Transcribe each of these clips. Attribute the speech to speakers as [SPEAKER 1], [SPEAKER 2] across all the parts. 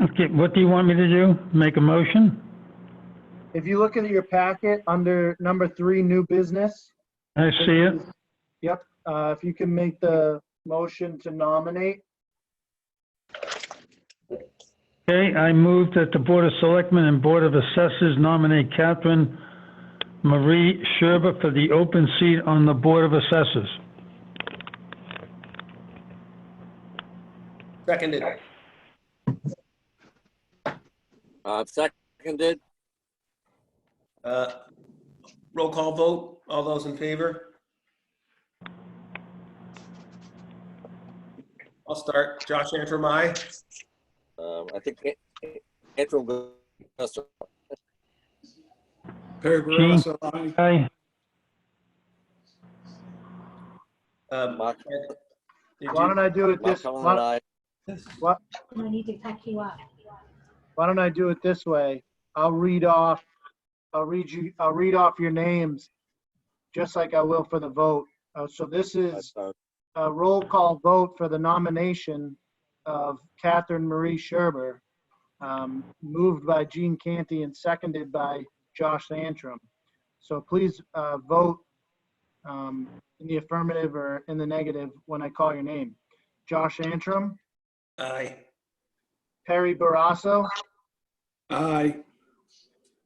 [SPEAKER 1] Okay, what do you want me to do? Make a motion?
[SPEAKER 2] If you look into your packet under number three, new business.
[SPEAKER 1] I see it.
[SPEAKER 2] Yep, uh, if you can make the motion to nominate,
[SPEAKER 1] Okay, I move that the Board of Selectmen and Board of Assessors nominate Catherine Marie Sherber for the open seat on the Board of Assessors.
[SPEAKER 3] Seconded.
[SPEAKER 4] Uh, seconded,
[SPEAKER 3] Uh, Roll call vote. All those in favor? I'll start. Josh Antrim, aye.
[SPEAKER 4] um, I think An- Andrew Augusta,
[SPEAKER 5] Perry Barrasso, aye.
[SPEAKER 1] Aye,
[SPEAKER 3] Um,
[SPEAKER 4] Mark,
[SPEAKER 3] did
[SPEAKER 2] why
[SPEAKER 3] you-
[SPEAKER 2] don't I do it
[SPEAKER 4] Mark
[SPEAKER 2] this,
[SPEAKER 4] Cullen, and
[SPEAKER 2] why
[SPEAKER 4] I.
[SPEAKER 6] I need to pack you up.
[SPEAKER 2] why don't I do it this way? I'll read off, I'll read you, I'll read off your names, just like I will for the vote. Uh, So this is
[SPEAKER 4] uh,
[SPEAKER 2] a roll call vote for the nomination of Catherine Marie Sherber, um, moved by Gene Canty and seconded by Josh Antrim. So please uh, vote um, in the affirmative or in the negative when I call your name. Josh Antrim,
[SPEAKER 3] Aye.
[SPEAKER 2] Perry Barasso,
[SPEAKER 5] Aye.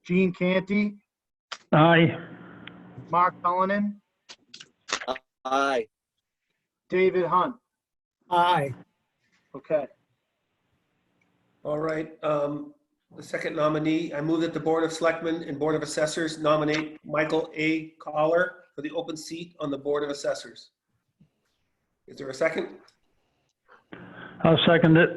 [SPEAKER 2] Gene Canty,
[SPEAKER 1] aye,
[SPEAKER 2] Mark Cullinan,
[SPEAKER 4] Aye,
[SPEAKER 2] David Hunt.
[SPEAKER 5] Aye.
[SPEAKER 2] Okay.
[SPEAKER 3] All right. um, The second nominee, I move that the Board of Selectmen and Board of Assessors nominate Michael A. Collar for the open seat on the Board of Assessors. Is there a second?
[SPEAKER 1] I'll second it.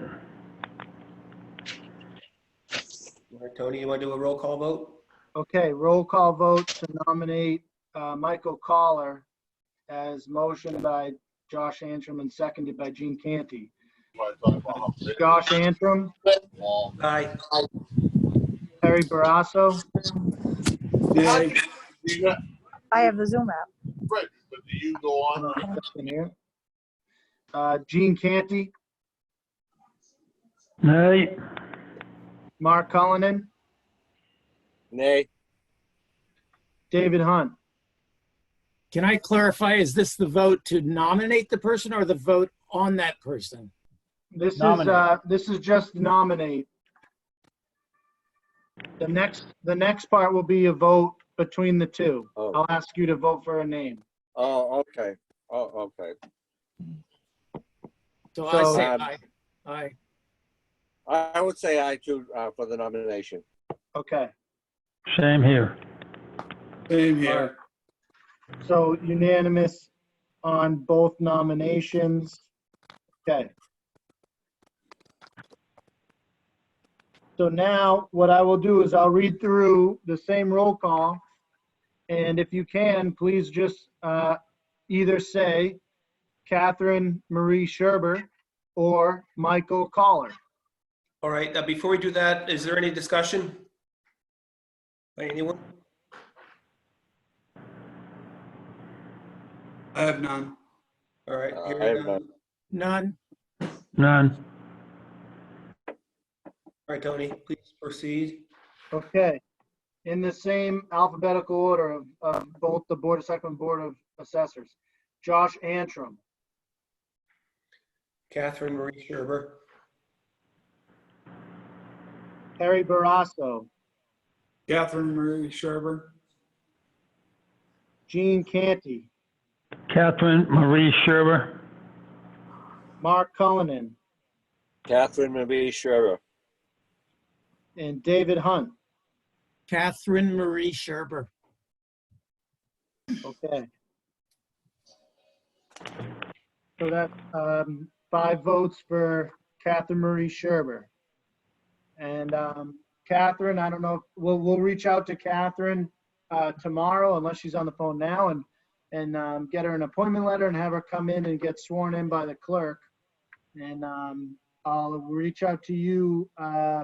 [SPEAKER 3] Tony, you want to do a roll call vote?
[SPEAKER 2] Okay, roll call vote to nominate uh, Michael Collar as motion by Josh Antrim and seconded by Gene Canty. Josh Antrim,
[SPEAKER 3] Aye.
[SPEAKER 2] Terry Barasso,
[SPEAKER 5] Nay.
[SPEAKER 7] You got,
[SPEAKER 6] I have the Zoom app.
[SPEAKER 7] right, but do you go on?
[SPEAKER 2] second here. Uh, Gene Canty,
[SPEAKER 1] Aye,
[SPEAKER 2] Mark Cullinan,
[SPEAKER 4] nay,
[SPEAKER 2] David Hunt.
[SPEAKER 8] Can I clarify, is this the vote to nominate the person or the vote on that person?
[SPEAKER 2] This is, uh,
[SPEAKER 8] Nominate.
[SPEAKER 2] this is just nominate. The next, the next part will be a vote between the two.
[SPEAKER 4] Oh.
[SPEAKER 2] I'll ask you to vote for a name.
[SPEAKER 4] oh, okay, oh, okay.
[SPEAKER 8] So I say
[SPEAKER 4] So, um,
[SPEAKER 8] aye. Aye.
[SPEAKER 4] I I would say aye too, uh, for the nomination.
[SPEAKER 2] Okay.
[SPEAKER 1] same here.
[SPEAKER 5] Same here.
[SPEAKER 2] So unanimous on both nominations. Okay. So now what I will do is I'll read through the same roll call. And if you can, please just uh, either say Catherine Marie Sherber or Michael Collar.
[SPEAKER 3] All right, uh, before we do that, is there any discussion? By anyone?
[SPEAKER 5] I have none.
[SPEAKER 3] All right.
[SPEAKER 4] Uh,
[SPEAKER 3] hearing
[SPEAKER 4] I have
[SPEAKER 3] none.
[SPEAKER 4] none.
[SPEAKER 3] All
[SPEAKER 8] None.
[SPEAKER 1] None.
[SPEAKER 3] right, Tony, please proceed.
[SPEAKER 2] Okay. In the same alphabetical order of, of both the Board of Selectmen, Board of Assessors. Josh Antrim,
[SPEAKER 3] Catherine Marie Sherber,
[SPEAKER 2] Harry Barasso,
[SPEAKER 5] Catherine Marie Sherber.
[SPEAKER 2] Gene Canty,
[SPEAKER 1] Catherine Marie Sherber,
[SPEAKER 2] Mark Cullinan,
[SPEAKER 4] Catherine Marie Scherer,
[SPEAKER 2] and David Hunt.
[SPEAKER 8] Catherine Marie Sherber.
[SPEAKER 2] Okay. So that's um, five votes for Catherine Marie Sherber. And um, Catherine, I don't know, we'll, we'll reach out to Catherine uh, tomorrow unless she's on the phone now and, and um, get her an appointment letter and have her come in and get sworn in by the clerk. And um, I'll reach out to you, uh,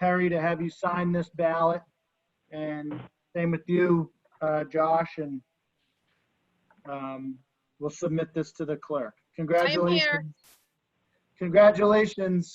[SPEAKER 2] Perry, to have you sign this ballot. And same with you, uh, Josh, and um, we'll submit this to the clerk. Congratulations. Congratulations.